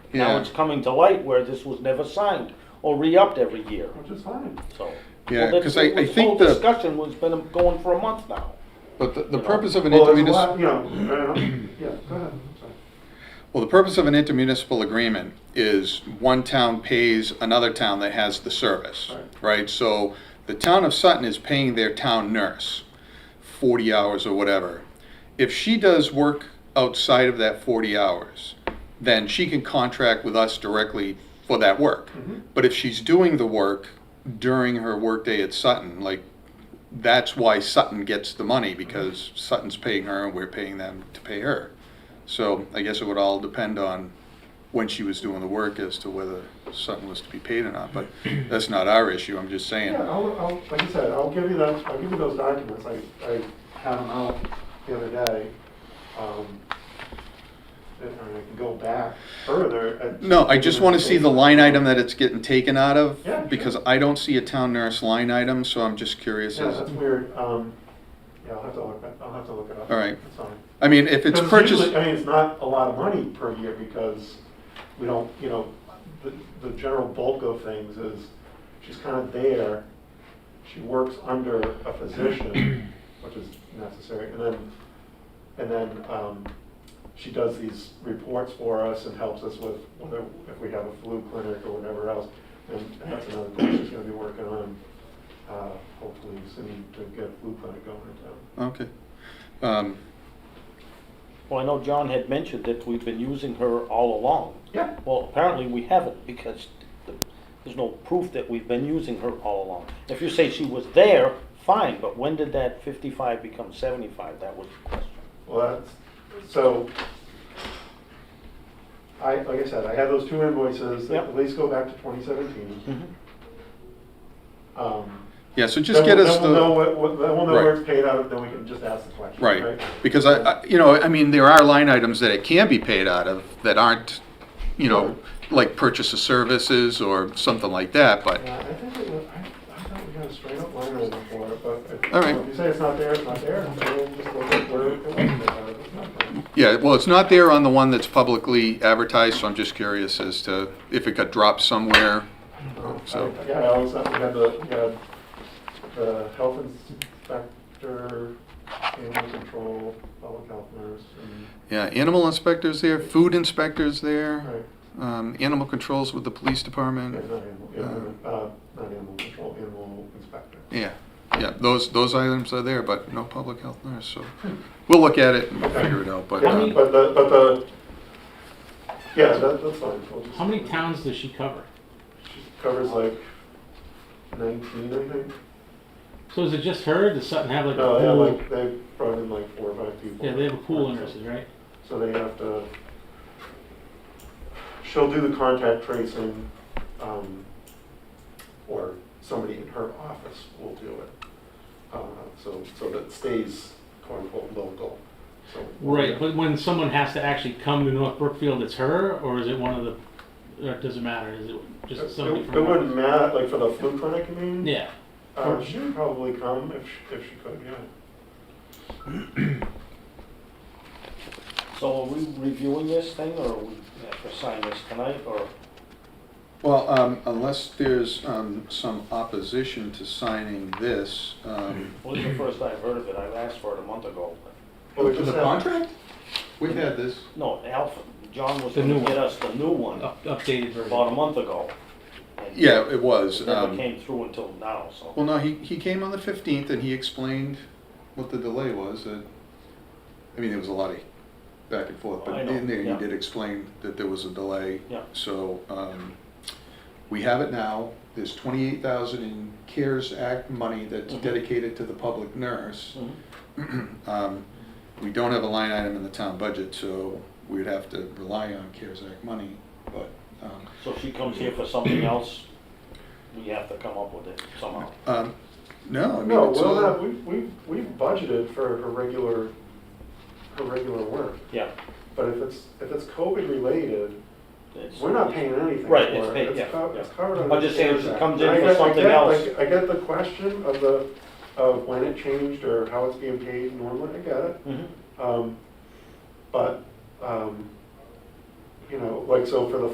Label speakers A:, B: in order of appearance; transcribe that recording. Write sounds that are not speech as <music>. A: Now
B: Yeah.
A: it's coming to light where this was never signed or re-upped every year,
C: which is fine.
A: so.
B: Yeah,
A: Well, that-
B: 'cause I- I
A: This
B: think
A: whole
B: the-
A: discussion was been going for a month now.
B: But the, the
A: You know.
B: purpose of an
C: Well, there's a
B: intermunicipal.
C: lot, you know, I don't know. yeah, go ahead, I'm sorry.
B: Well, the purpose of an intermunicipal agreement is one town pays another town that has the service, right? So the town of Sutton is paying their town nurse 40 hours or whatever. If she does work outside of that 40 hours, then she can contract with us directly for that work.
C: Mm-hmm.
B: But if she's doing the work during her workday at Sutton, like that's why Sutton gets the money because Sutton's paying her and we're paying them to pay her. So I guess it would all depend on when she was doing the work as to whether Sutton was to be paid or not, but that's not our issue, I'm just saying.
C: Yeah, I'll, I'll, like you said, I'll give you that, I'll give you those documents, I, I had them out the other day. Um, And and I can go back further. at-
B: No, I just wanna see the line item that it's getting taken out
C: Yeah, sure.
B: of, because I don't see a town nurse line item, so I'm just curious
C: Yeah,
B: as,
C: that's weird, um, yeah, I'll have to look, I'll have to look it up.
B: All right.
C: That's fine.
B: I mean, if it's
C: 'Cause
B: purchased.
C: usually- I mean, it's not a lot of money per year because we don't, you know, the, the general bulk of things is she's kind of there. She works under a
B: <clears throat>
C: physician, which is necessary, and then, and then, um, she does these reports for us and helps us with whether, if we have a flu clinic or whatever else. And that's another thing she's gonna be working on, uh, hopefully soon to get a flu clinic going in town.
B: Okay. Um,
A: Well, I know John had mentioned that we've been using her all along.
C: Yeah.
A: Well, apparently we haven't because the- there's no proof that we've been using her all along. If you say she was there, fine, but when did that fifty-five become seventy-five? That was the question.
C: Well, that's, so, I, like I said, I have those two invoices that
A: Yep. Mm-hmm.
C: at least go back to twenty seventeen.
B: Mm-hmm.
C: Um,
B: Yeah, so just get us the.
C: Then we'll know what- what, then we'll know where
B: Right.
C: it's paid out of, then we can just ask the question, right?
B: Right, because I, I- you know, I mean, there are line items that it can be paid out of that aren't, you know, like purchase of services or something like that, but,
C: Yeah, I think, it was- I, I thought we got a straight up line item for it, but if-
B: All right.
C: if you say it's not there, it's not there, and so we'll just look at where it was. paid out of. It's not
B: <laughs>
C: there.
B: yeah, well, it's not there on the one that's publicly advertised, so I'm just curious as to if it got dropped somewhere. So-
C: Yeah, I always thought we had the, we had the health inspector, animal control, public health nurse, and,
B: Yeah, animal inspectors there, food inspectors there,
C: right,
B: um, animal controls with the police
C: yeah,
B: department.
C: not animal, yeah, uh, not animal control, animal inspector.
B: Yeah, yeah, those, those items are there, but no public health nurse, so we'll look at it and figure it out, but.
C: Yeah,
B: um,
C: But the, but the, yeah, that, that's fine. we'll just-
D: How many towns does she cover?
C: She Covers like nineteen, I think.
D: So is it just her? Does Sutton have like a
C: No, they have
D: pool?
C: like, they brought in like four or five people.
D: yeah, they have a pool of
C: So-
D: nurses, right?
C: So they have to, she'll do the contact tracing, um, or somebody in her office will do it. Uh, so, so that stays quote unquote local, so.
D: Right, but when someone has to actually come to North Brookfield, it's her, or is it one of the? Or it doesn't matter. Is it
C: It
D: just somebody
C: it
D: from?
C: wouldn't matter, like for the flu clinic, I mean?
D: Yeah.
C: Uh, she'd probably come if, she- if she could, yeah.
A: So are we reviewing this thing or we have to sign this tonight or?
B: Well, um, unless there's, um, some opposition to signing this, um.
A: Well, this is the first I've heard of it. I've asked for it a month ago. Oh,
C: Well, we just have-
B: We've had this.
A: No, Alf, John was
D: The
A: gonna
D: new
A: get
D: one. Oh.
A: us the new one
D: Up, updated version.
A: about a month ago. and
B: Yeah, it was,
A: It never
B: um,
A: came through until now, so.
B: well, no, he, he came on the fifteenth and he explained what the delay was, that, I mean, there was a lot of back and forth, but
A: I know,
B: in there, he
A: yeah.
B: did explain that there was a delay.
A: Yeah.
B: So, um, we have it now, there's twenty-eight thousand in CARES Act money that's
A: Mhm.
B: dedicated to the public nurse.
A: Mhm.
D: Mm-hmm.
B: Um, We don't have a line item in the town budget, so we'd have to rely on CARES Act money, but, um,
A: So if she comes here for something else, we have to come up with it somehow.
B: um, no, I mean,
C: No,
B: it's
C: we'll
B: all-
C: have, we, we, we've budgeted for her regular, her regular work,
A: Yeah.
C: but if it's, if it's COVID related,
A: it's-
C: We're not paying anything for
A: Right,
C: it.
A: it's paid, yeah,
C: co-
A: yeah.
C: It's covered under.
A: I'm just saying if
C: CARES
A: it
C: Act.
A: comes in
C: I
A: for
C: get- I
A: something
C: get,
A: else.
C: like, I get the question of the, of when it changed or how it's being paid normally, I get it.
A: Mhm.
C: Um, But, um, you know, like, so for the